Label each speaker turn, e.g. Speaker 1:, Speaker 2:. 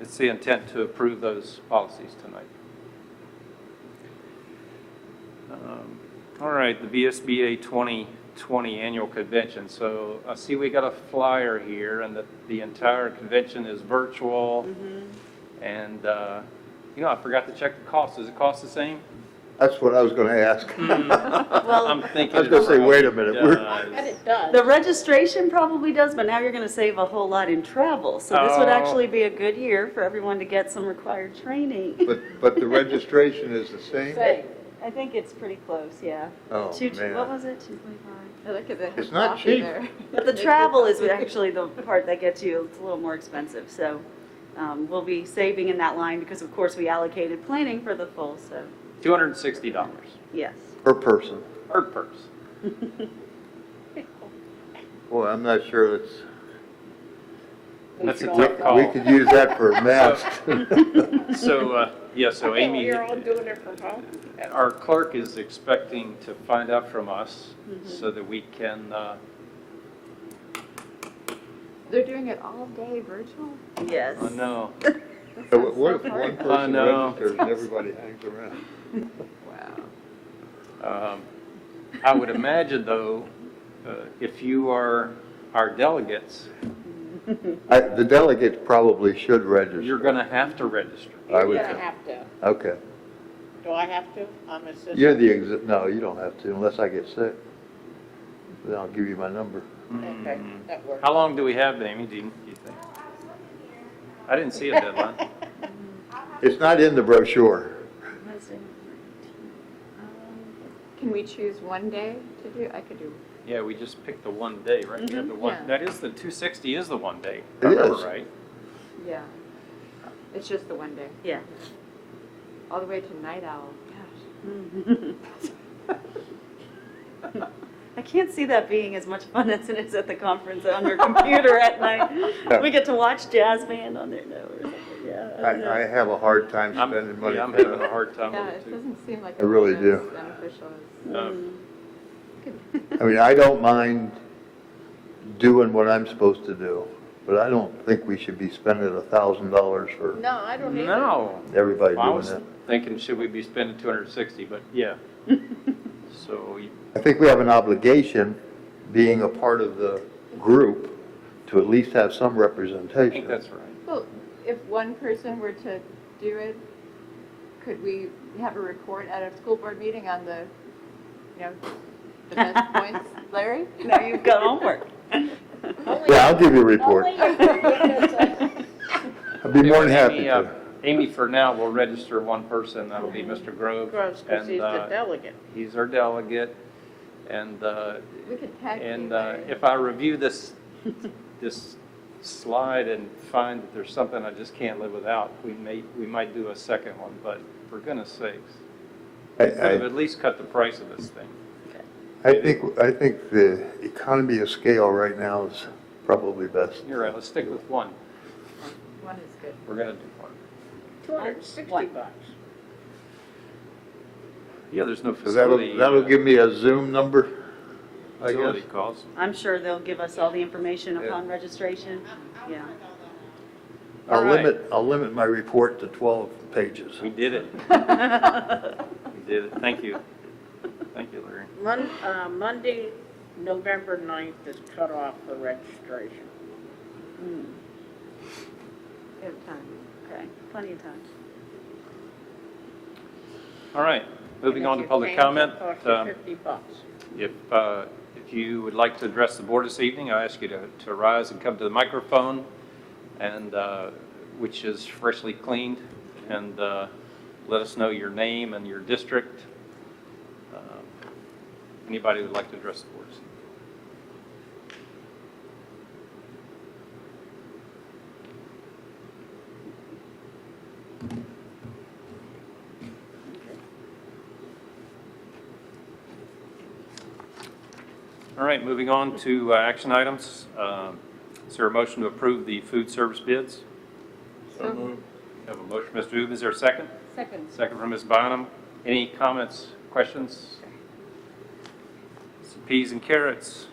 Speaker 1: It's the intent to approve those policies tonight. Um, All right, the VSBA 2020 Annual Convention. So I see we got a flyer here, and that the entire convention is virtual. And, uh, you know, I forgot to check the cost. Does it cost the same?
Speaker 2: That's what I was gonna ask.
Speaker 1: I'm
Speaker 3: Well,
Speaker 1: thinking. uh,
Speaker 2: I was gonna
Speaker 1: it
Speaker 2: say, wait a
Speaker 1: probably
Speaker 2: minute, we're-
Speaker 1: does.
Speaker 4: And it does.
Speaker 3: the registration probably does, but now you're going to save a whole lot in travel. So this would
Speaker 1: Oh.
Speaker 3: actually be a good year for everyone to get some required training.
Speaker 2: But, but the registration is the same?
Speaker 4: Say,
Speaker 3: I think it's pretty close, yeah.
Speaker 2: Oh,
Speaker 3: Two-
Speaker 2: man.
Speaker 3: What was it, 225?
Speaker 5: I Look at the.
Speaker 2: It's not
Speaker 5: coffee
Speaker 2: cheap.
Speaker 5: there.
Speaker 3: But the travel is actually the part that gets you, it's a little more expensive, so um, we'll be saving in that line because of course we allocated planning for the full, so,
Speaker 1: $260
Speaker 3: yes.
Speaker 2: Per person.
Speaker 1: per purse.
Speaker 2: Boy, I'm not sure that's,
Speaker 1: That's a
Speaker 2: we,
Speaker 1: tough
Speaker 2: we
Speaker 1: call.
Speaker 2: could use that for masks.
Speaker 1: So, uh, yeah, so
Speaker 4: okay, well,
Speaker 1: Amy,
Speaker 4: you're all doing it from home.
Speaker 1: our clerk is expecting to find out from us
Speaker 5: Mm-hmm.
Speaker 1: so that we can, uh,
Speaker 5: They're doing it all day virtual?
Speaker 3: Yes.
Speaker 1: oh no,
Speaker 2: But What if one
Speaker 1: I
Speaker 2: person
Speaker 1: know.
Speaker 2: registers and everybody hangs around?
Speaker 5: Wow.
Speaker 1: Um, I would imagine, though, uh, if you are our delegates,
Speaker 2: I, the delegates probably
Speaker 1: you're
Speaker 2: should register.
Speaker 1: going to have to register.
Speaker 2: I
Speaker 4: You're
Speaker 2: would
Speaker 4: gonna
Speaker 2: think.
Speaker 4: have to.
Speaker 2: Okay.
Speaker 4: Do I have to? I'm assistant.
Speaker 2: You're the exi, no, you don't have to unless I get sick. Then I'll give you my number.
Speaker 4: Okay,
Speaker 1: Mm.
Speaker 4: that works.
Speaker 1: How long do we have, Amy, do you do you think? I didn't see a deadline.
Speaker 2: It's not in the brochure.
Speaker 5: Can we choose one day to do? I could do.
Speaker 1: Yeah, we just picked the one day, right? We have the
Speaker 5: Mm-hmm. Yeah.
Speaker 1: one, that is, the 260 is the one day.
Speaker 2: It
Speaker 1: I remember
Speaker 2: is.
Speaker 1: right.
Speaker 5: Yeah. It's just the one day.
Speaker 3: Yeah.
Speaker 5: All the way to night owl. Gosh.
Speaker 3: I can't see that being as much fun as it is at the conference on your computer at night. We get to watch jazz band on there now or something, yeah. I don't know.
Speaker 2: I, I have a hard time
Speaker 1: I'm,
Speaker 2: spending money.
Speaker 1: yeah, I'm
Speaker 2: for
Speaker 1: having a
Speaker 2: that.
Speaker 1: hard time
Speaker 5: Yeah,
Speaker 1: with it,
Speaker 5: it
Speaker 1: too.
Speaker 5: doesn't seem like.
Speaker 2: I really
Speaker 5: it's
Speaker 2: do.
Speaker 5: as Beneficial as.
Speaker 1: Um,
Speaker 2: I mean, I don't mind doing what I'm supposed to do, but I don't think we should be spending a thousand dollars for
Speaker 4: No, I
Speaker 5: Mm.
Speaker 4: don't either.
Speaker 1: No.
Speaker 2: everybody
Speaker 1: Well, I
Speaker 2: doing
Speaker 1: was
Speaker 2: that.
Speaker 1: thinking, should we be spending 260, but yeah. So you-
Speaker 2: I think we have an obligation, being a part of the group, to at least have some
Speaker 1: I think
Speaker 2: representation.
Speaker 1: that's right.
Speaker 5: Well, if one person were to do it, could we have a report at a school board meeting on the, you know, the best points, Larry?
Speaker 3: Now you've got homework.
Speaker 4: Only-
Speaker 2: Yeah, I'll give you a report.
Speaker 4: only if you give us a-
Speaker 2: I'd be more than happy
Speaker 1: Amy, uh,
Speaker 2: to.
Speaker 1: Amy, for now, will register one person, that'll be Mr. Grove.
Speaker 4: Gross, because
Speaker 1: and,
Speaker 4: he's the
Speaker 1: uh,
Speaker 4: delegate.
Speaker 1: He's our delegate, and, uh,
Speaker 5: We could tag team.
Speaker 1: and uh,
Speaker 5: Larry.
Speaker 1: if I review this, this slide and find that there's something I just can't live without, we may, we might do a second one, but for goodness sakes,
Speaker 2: I,
Speaker 1: could have
Speaker 2: I,
Speaker 1: at least cut the price of this thing.
Speaker 2: I think, I think the economy of scale right now is probably best.
Speaker 1: You're right, let's stick with one,
Speaker 5: One is good.
Speaker 1: we're gonna do one.
Speaker 4: Two hundred and sixty
Speaker 3: What?
Speaker 4: bucks.
Speaker 1: Yeah, there's no
Speaker 2: So that'll,
Speaker 1: facility. uh,
Speaker 2: that'll give me a Zoom number, I
Speaker 1: Facility
Speaker 2: guess.
Speaker 1: costs.
Speaker 3: I'm sure they'll give us all the information
Speaker 2: Yeah.
Speaker 3: upon registration, yeah.
Speaker 1: All
Speaker 2: I'll
Speaker 1: right.
Speaker 2: limit, I'll limit my report to 12 pages.
Speaker 1: We did it. We did it, thank you. Thank you, Larry.
Speaker 4: Mon, uh, Monday, November ninth is cut off for registration.
Speaker 5: We have time.
Speaker 3: Okay, plenty of time.
Speaker 1: All right, moving
Speaker 4: And
Speaker 1: on to
Speaker 4: if you
Speaker 1: public
Speaker 4: change, it
Speaker 1: comment.
Speaker 4: costs you
Speaker 1: Um,
Speaker 4: Fifty bucks.
Speaker 1: If, uh, if you would like to address the board this evening, I ask you to to rise and come to the microphone, and, uh, which is freshly cleaned, and uh, let us know your name and your district. Um, Anybody who would like to address the board this evening? All right, moving on to uh, action items. Um, Is there a motion to approve the food service bids?
Speaker 5: So
Speaker 1: Have a motion, Mr. Uben, is there a second?
Speaker 5: Second.
Speaker 1: Second from Ms. Bonham. Any comments, questions? Some peas and carrots.